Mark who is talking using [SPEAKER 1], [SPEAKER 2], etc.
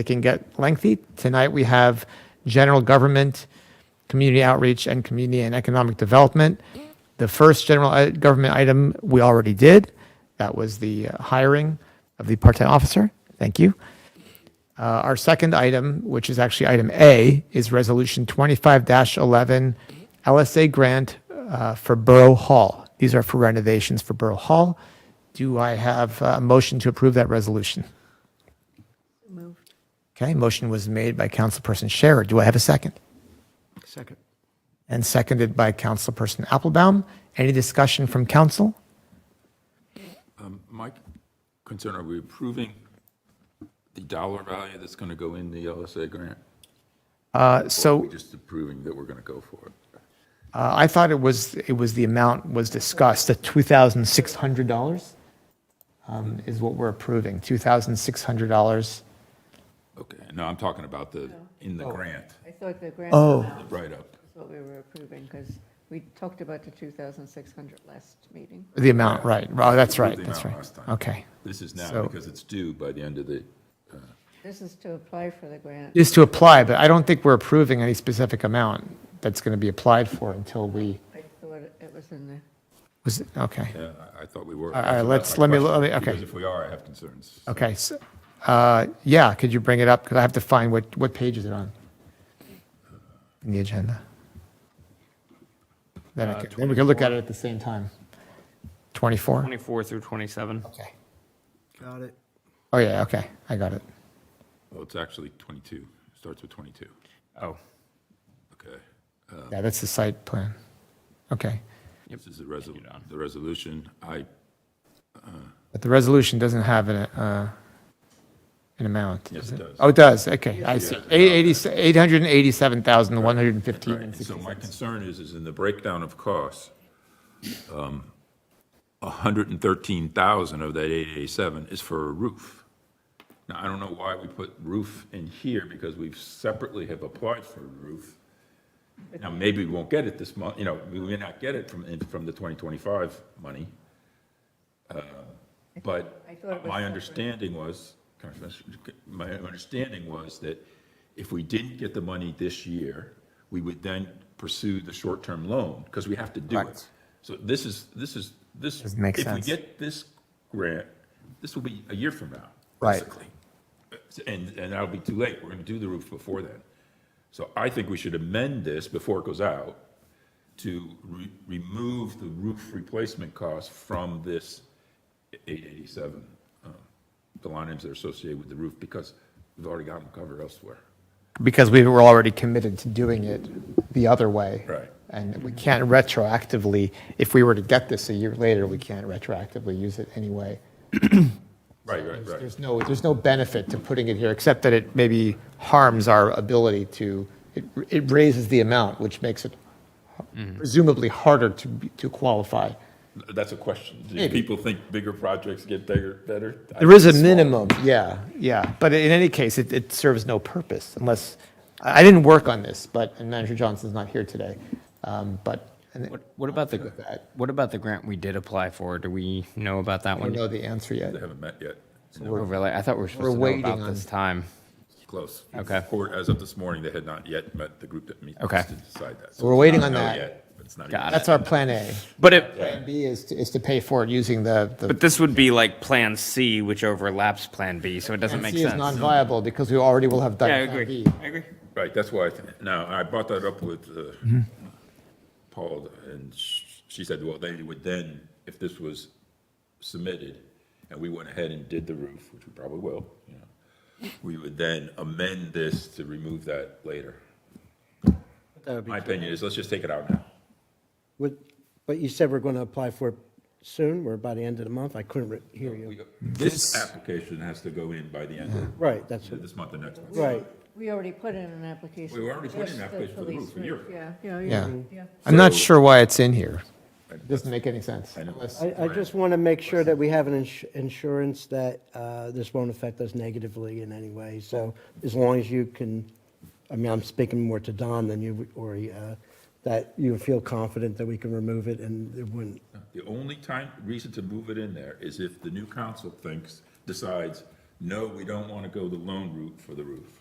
[SPEAKER 1] It can get lengthy. Tonight, we have general government, community outreach, and community and economic development. The first general uh, government item we already did. That was the uh, hiring of the part-time officer. Thank you. Uh, Our second item, which is actually item A, is Resolution 25-11, LSA grant uh, for Borough Hall. These are for renovations for Borough Hall. Do I have uh, a motion to approve that resolution?
[SPEAKER 2] Moved.
[SPEAKER 1] Okay, motion was made by Councilperson Scherer. Do I have a second?
[SPEAKER 3] Second.
[SPEAKER 1] And seconded by Councilperson Applebaum. Any discussion from council?
[SPEAKER 4] My concern, are we approving the dollar value that's going to go in the LSA grant?
[SPEAKER 1] Uh, So
[SPEAKER 4] We're just approving that we're going to go for it.
[SPEAKER 1] uh, I thought it was, it was the amount was discussed, the $2,600 um, is what we're approving, $2,600.
[SPEAKER 4] Okay, no, I'm talking about the, in the grant,
[SPEAKER 2] I thought the grant
[SPEAKER 1] Oh.
[SPEAKER 2] amount
[SPEAKER 4] the write-up.
[SPEAKER 2] is what we were approving, because we talked about the 2,600 last meeting.
[SPEAKER 1] The amount, right. Oh, that's right,
[SPEAKER 4] The
[SPEAKER 1] that's
[SPEAKER 4] amount
[SPEAKER 1] right.
[SPEAKER 4] last time.
[SPEAKER 1] Okay.
[SPEAKER 4] This is
[SPEAKER 1] So-
[SPEAKER 4] now because it's due by the end of the,
[SPEAKER 2] This is to apply for the grant.
[SPEAKER 1] Is to apply, but I don't think we're approving any specific amount that's going to be applied for until we,
[SPEAKER 2] I thought it was in the,
[SPEAKER 1] was, okay.
[SPEAKER 4] yeah, uh, I- I thought we were.
[SPEAKER 1] All right,
[SPEAKER 4] that's
[SPEAKER 1] let's-
[SPEAKER 4] my
[SPEAKER 1] let me-
[SPEAKER 4] question,
[SPEAKER 1] let me- okay.
[SPEAKER 4] Because if we are, I have concerns.
[SPEAKER 1] Okay, so, uh, yeah, could you bring it up? Because I have to find what, what page is it on? In the agenda. Then
[SPEAKER 4] Uh,
[SPEAKER 1] I could, then we can look at it at the same time. 24?
[SPEAKER 5] 24 through 27.
[SPEAKER 1] Okay.
[SPEAKER 3] Got it.
[SPEAKER 1] Oh, yeah, okay, I got it.
[SPEAKER 4] Well, it's actually 22, starts with 22.
[SPEAKER 5] Oh,
[SPEAKER 4] Okay. Uh.
[SPEAKER 1] Yeah, that's the site plan. Okay.
[SPEAKER 4] This is the resol, the resolution. I,
[SPEAKER 1] But the resolution doesn't have an, uh, an amount,
[SPEAKER 4] Yes,
[SPEAKER 1] does it?
[SPEAKER 4] it does.
[SPEAKER 1] Oh, it does, okay, I see. Eight eighty- 887,115 and
[SPEAKER 4] so my
[SPEAKER 1] 66.
[SPEAKER 4] concern is, is in the breakdown of costs, um, 113,000 of that 887 is for a roof. Now, I don't know why we put roof in here, because we've separately have applied for a roof. Now, maybe we won't get it this month, you know, we may not get it from, from the 2025 money. Uh, But
[SPEAKER 2] I thought it
[SPEAKER 4] my
[SPEAKER 2] was separate.
[SPEAKER 4] understanding was, my understanding was that if we didn't get the money this year, we would then pursue the short-term loan, because we have to do it.
[SPEAKER 1] Correct.
[SPEAKER 4] So this is, this is, this.
[SPEAKER 1] Doesn't make
[SPEAKER 4] If we
[SPEAKER 1] sense.
[SPEAKER 4] get this grant, this will be a year from now,
[SPEAKER 1] Right.
[SPEAKER 4] basically. And, and that'll be too late. We're going to do the roof before then. So I think we should amend this before it goes out to re- remove the roof replacement cost from this 887, um, the line items that are associated with the roof, because we've already got them covered elsewhere.
[SPEAKER 1] Because we were already committed to doing it the other way.
[SPEAKER 4] Right.
[SPEAKER 1] And we can't retroactively, if we were to get this a year later, we can't retroactively use it anyway.
[SPEAKER 4] Right, right, right.
[SPEAKER 1] There's no, there's no benefit to putting it here, except that it maybe harms our ability to, it, it raises the amount, which makes it
[SPEAKER 4] Mm-hmm.
[SPEAKER 1] presumably harder to, be- to qualify.
[SPEAKER 4] That's a question. Do
[SPEAKER 1] Maybe.
[SPEAKER 4] people think bigger projects get bigger, better? I
[SPEAKER 1] There is a
[SPEAKER 4] think smaller.
[SPEAKER 1] minimum, yeah, yeah. But in any case, it, it serves no purpose unless, I I didn't work on this, but, and Manager Johnson's not here today, um, but, and
[SPEAKER 5] what, what about the,
[SPEAKER 1] good with that.
[SPEAKER 5] what about the grant we did apply for? Do we know about that
[SPEAKER 1] I don't
[SPEAKER 5] one?
[SPEAKER 1] know the answer yet.
[SPEAKER 4] They haven't met yet.
[SPEAKER 5] Oh, really? I thought we were
[SPEAKER 1] we're
[SPEAKER 5] supposed to know
[SPEAKER 1] waiting
[SPEAKER 5] about
[SPEAKER 1] on-
[SPEAKER 5] this time.
[SPEAKER 4] Close.
[SPEAKER 5] Okay.
[SPEAKER 4] Court, as of this morning, they had not yet met the group that meets
[SPEAKER 5] Okay.
[SPEAKER 4] to decide that.
[SPEAKER 1] We're waiting
[SPEAKER 4] it's
[SPEAKER 1] on
[SPEAKER 4] not
[SPEAKER 1] that.
[SPEAKER 4] yet, But it's not.
[SPEAKER 5] Got
[SPEAKER 4] even-
[SPEAKER 1] That's our plan A.
[SPEAKER 5] But it,
[SPEAKER 1] Plan B is, to- is to pay for it using the. the-
[SPEAKER 5] but this would be like Plan C, which overlaps Plan B, so it doesn't make
[SPEAKER 1] C is
[SPEAKER 5] sense.
[SPEAKER 1] non-viable because we already will have done
[SPEAKER 5] Yeah, I
[SPEAKER 1] Plan B.
[SPEAKER 5] agree. I agree.
[SPEAKER 4] Right, that's why, I th- now, I brought that up with uh, Paul, and sh- she said, well, they would then, if this was submitted, and we went ahead and did the roof, which we probably will, you know, we would then amend this to remove that later.
[SPEAKER 3] That would be,
[SPEAKER 4] My opinion is, let's just take it out now.
[SPEAKER 3] would, but you said we're going to apply for it soon, or by the end of the month? I couldn't re- hear
[SPEAKER 4] We
[SPEAKER 3] you.
[SPEAKER 4] go- This application has to go in by the end of
[SPEAKER 3] Right, that's,
[SPEAKER 4] this month or next month.
[SPEAKER 3] right.
[SPEAKER 2] we already put in an application.
[SPEAKER 4] We already put in an
[SPEAKER 2] Just the
[SPEAKER 4] application for the
[SPEAKER 2] police
[SPEAKER 4] roof a year ago.
[SPEAKER 2] Yeah, yeah,
[SPEAKER 1] Yeah.
[SPEAKER 2] yeah, yeah.
[SPEAKER 1] I'm not
[SPEAKER 4] So-
[SPEAKER 1] sure why it's in here. It doesn't make any sense.
[SPEAKER 4] I know.
[SPEAKER 1] Unless-
[SPEAKER 3] I, I just want to make sure that we have an ins- insurance that uh, this won't affect us negatively in any way. So as long as you can, I mean, I'm speaking more to Don than you, or uh, that you feel confident that we can remove it and it wouldn't.
[SPEAKER 4] The only time, reason to move it in there is if the new council thinks, decides no, we don't want to go the loan route for the roof.